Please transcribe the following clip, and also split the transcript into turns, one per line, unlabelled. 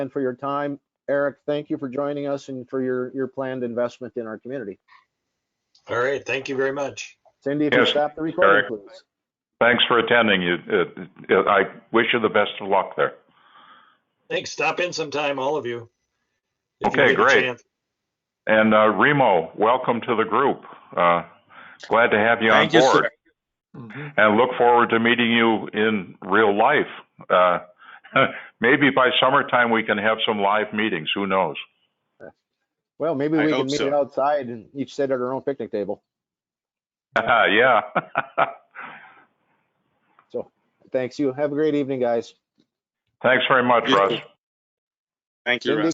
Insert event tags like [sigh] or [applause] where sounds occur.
and for your time. Eric, thank you for joining us and for your, your planned investment in our community.
All right, thank you very much.
Cindy, if you
Yes,
stop the recording,
Eric.
please.
Thanks for attending. You, uh, uh, I wish you the best of luck there.
Thanks. Stop in sometime, all of you. if you
Okay,
get a
great.
chance.
And uh, Remo, welcome to the group. Uh, glad to have you on
Thank you, sir.
board. And look forward to meeting you in real life. Uh, [laughs] maybe by summertime we can have some live meetings. Who knows? [laughs]
Well, maybe
I
we can
hope
meet
so.
outside and each sit at our own picnic table.
yeah. [laughs]
Thanks you. Have a great evening, guys.
Thanks very much,
You
Russ.
too. Thank you,
Cindy?
Russ.